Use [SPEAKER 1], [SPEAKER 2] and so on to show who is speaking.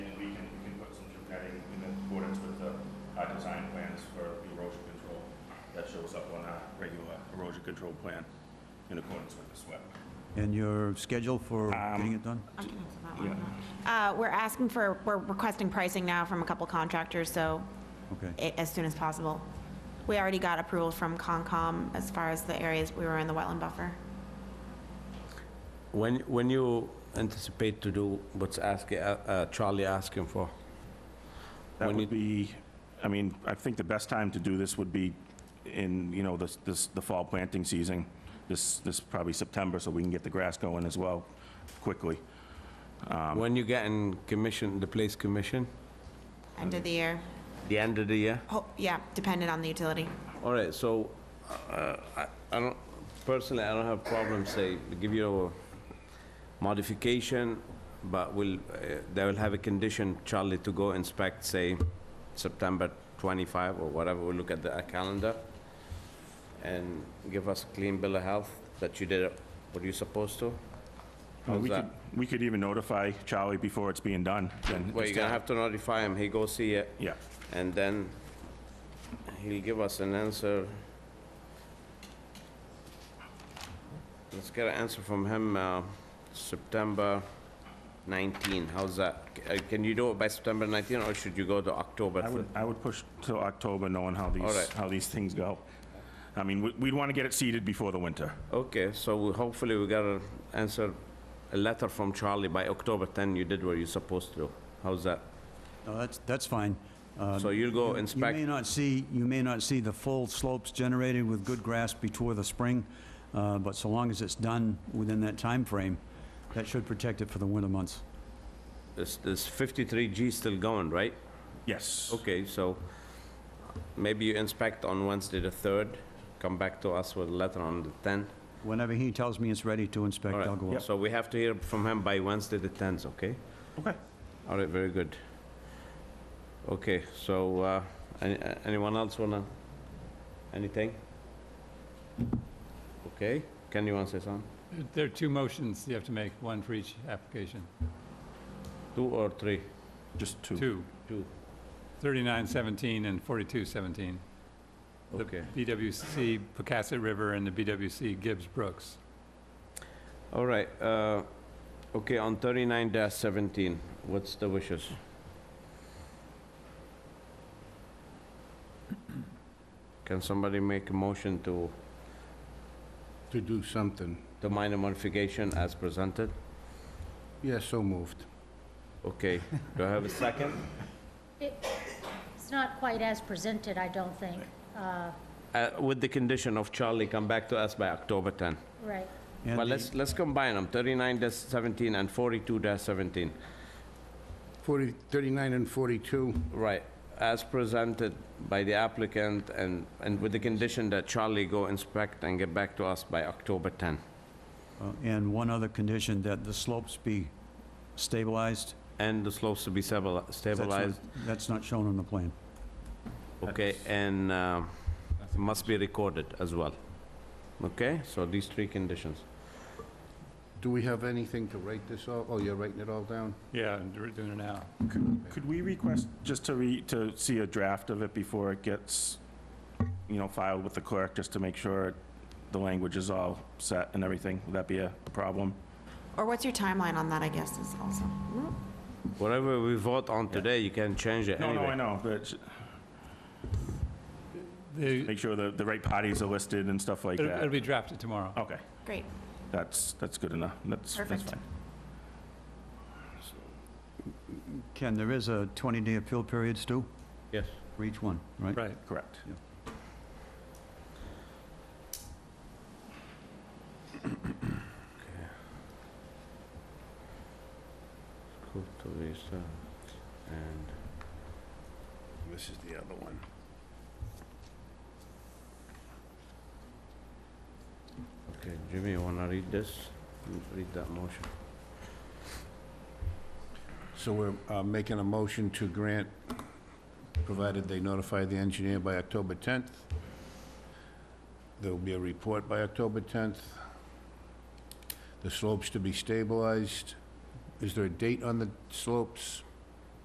[SPEAKER 1] shows up on our regular erosion control plan in accordance with the SWIP.
[SPEAKER 2] And your schedule for
[SPEAKER 3] Um,
[SPEAKER 2] getting it done?
[SPEAKER 4] I can answer that one. Uh, We're asking for, we're requesting pricing now from a couple contractors, so
[SPEAKER 2] Okay,
[SPEAKER 4] a- as soon as possible. We already got approval from Concom as far as the areas we were in the wetland buffer.
[SPEAKER 3] When, when you anticipate to do what's asking, uh, Charlie asking for?
[SPEAKER 1] That
[SPEAKER 3] When
[SPEAKER 1] would be, I mean, I think the best time to do this would be in, you know, this, this, the fall planting season, this, this probably September, so we can get the grass going as well quickly.
[SPEAKER 3] When you getting commission, the place commission?
[SPEAKER 4] End of the year,
[SPEAKER 3] The end of the year?
[SPEAKER 4] Ho- yeah, dependent on the utility.
[SPEAKER 3] All right, so, uh, I I don't, personally, I don't have problem, say, give you a modification, but will, uh, they will have a condition, Charlie, to go inspect, say, September 25 or whatever, we'll look at the uh, calendar, and give us a clean bill of health that you did what you supposed to. How's
[SPEAKER 1] We could,
[SPEAKER 3] that?
[SPEAKER 1] we could even notify Charlie before it's being done, then.
[SPEAKER 3] Well,
[SPEAKER 1] it's
[SPEAKER 3] you're gonna
[SPEAKER 1] done.
[SPEAKER 3] have to notify him, he go see it.
[SPEAKER 1] Yeah,
[SPEAKER 3] And then he'll give us an answer. Let's get an answer from him, uh, September 19, how's that? C- uh, Can you do it by September 19, or should you go to October?
[SPEAKER 1] I would,
[SPEAKER 3] fir-
[SPEAKER 1] I would push till October, knowing how
[SPEAKER 3] All
[SPEAKER 1] these,
[SPEAKER 3] right.
[SPEAKER 1] how these things go. I mean, we- we'd want to get it seeded before the winter.
[SPEAKER 3] Okay, so we- hopefully we got an answer, a letter from Charlie by October 10, you did what you're supposed to do. How's that?
[SPEAKER 2] no, that's, that's fine. Uh,
[SPEAKER 3] So you'll go
[SPEAKER 2] You may
[SPEAKER 3] inspect,
[SPEAKER 2] not see, you may not see the full slopes generated with good grass before the spring, uh, but so long as it's done within that time frame, that should protect it for the winter months.
[SPEAKER 3] is is 53G still going, right?
[SPEAKER 1] Yes.
[SPEAKER 3] Okay, so maybe you inspect on Wednesday the 3rd, come back to us with a letter on the 10th.
[SPEAKER 2] Whenever he tells me it's ready to inspect,
[SPEAKER 3] All
[SPEAKER 2] I'll go
[SPEAKER 3] right,
[SPEAKER 2] up.
[SPEAKER 3] so we have to hear from him by Wednesday the 10th, okay?
[SPEAKER 1] Okay.
[SPEAKER 3] All right, very good. Okay, so uh, any- a- anyone else wanna, anything? Okay, Ken, you wanna say something?
[SPEAKER 5] There are two motions you have to make, one for each application.
[SPEAKER 3] Two or three?
[SPEAKER 1] Just two.
[SPEAKER 5] Two,
[SPEAKER 3] Two.
[SPEAKER 5] 3917 and 4217. The
[SPEAKER 3] Okay.
[SPEAKER 5] BWC Pocasset River and the BWC Gibbs Brooks.
[SPEAKER 3] All right, uh, okay, on 39-17, what's the wishes? Can somebody make a motion to,
[SPEAKER 6] to do something.
[SPEAKER 3] the minor modification as presented?
[SPEAKER 6] Yes, so moved.
[SPEAKER 3] Okay, do I have a second?
[SPEAKER 7] It's not quite as presented, I don't think. Uh,
[SPEAKER 3] Uh, With the condition of Charlie come back to us by October 10.
[SPEAKER 7] Right.
[SPEAKER 2] And the-
[SPEAKER 3] But let's, let's combine them, 39-17 and 42-17.
[SPEAKER 6] 40, 39 and 42,
[SPEAKER 3] Right, as presented by the applicant and, and with the condition that Charlie go inspect and get back to us by October 10.
[SPEAKER 2] uh, And one other condition, that the slopes be stabilized.
[SPEAKER 3] And the slopes to be stabili-
[SPEAKER 2] That's not-
[SPEAKER 3] stabilized,
[SPEAKER 2] That's not shown on the plan.
[SPEAKER 3] okay, and uh, must be recorded as well. Okay, so these three conditions.
[SPEAKER 6] do we have anything to write this all? Oh, you're writing it all down?
[SPEAKER 5] Yeah, and we're doing it now.
[SPEAKER 1] Could we request, just to re, to see a draft of it before it gets, you know, filed with the clerk, just to make sure the language is all set and everything? Would that be a problem?
[SPEAKER 4] Or what's your timeline on that, I guess, is also.
[SPEAKER 3] Whatever we vote on today, you can change it
[SPEAKER 1] No, no, I
[SPEAKER 3] anyway.
[SPEAKER 1] know, but sh-
[SPEAKER 5] They-
[SPEAKER 1] make sure the, the right parties are listed and stuff like
[SPEAKER 5] It'll it'll
[SPEAKER 1] that.
[SPEAKER 5] be drafted tomorrow.
[SPEAKER 1] Okay,
[SPEAKER 4] Great.
[SPEAKER 1] that's, that's good enough. That's, that's
[SPEAKER 4] Perfect.
[SPEAKER 1] fine.
[SPEAKER 2] Ken, there is a 20-day appeal period, Stu,
[SPEAKER 3] Yes.
[SPEAKER 2] for each one, right?
[SPEAKER 5] Right.
[SPEAKER 1] Correct.
[SPEAKER 3] Cool, to be so- And
[SPEAKER 6] This is the other one.
[SPEAKER 3] Okay, Jimmy, you wanna read this? Read that motion.
[SPEAKER 6] So we're uh, making a motion to grant, provided they notify the engineer by October 10th. There'll be a report by October 10th. The slopes to be stabilized. Is there a date on the slopes?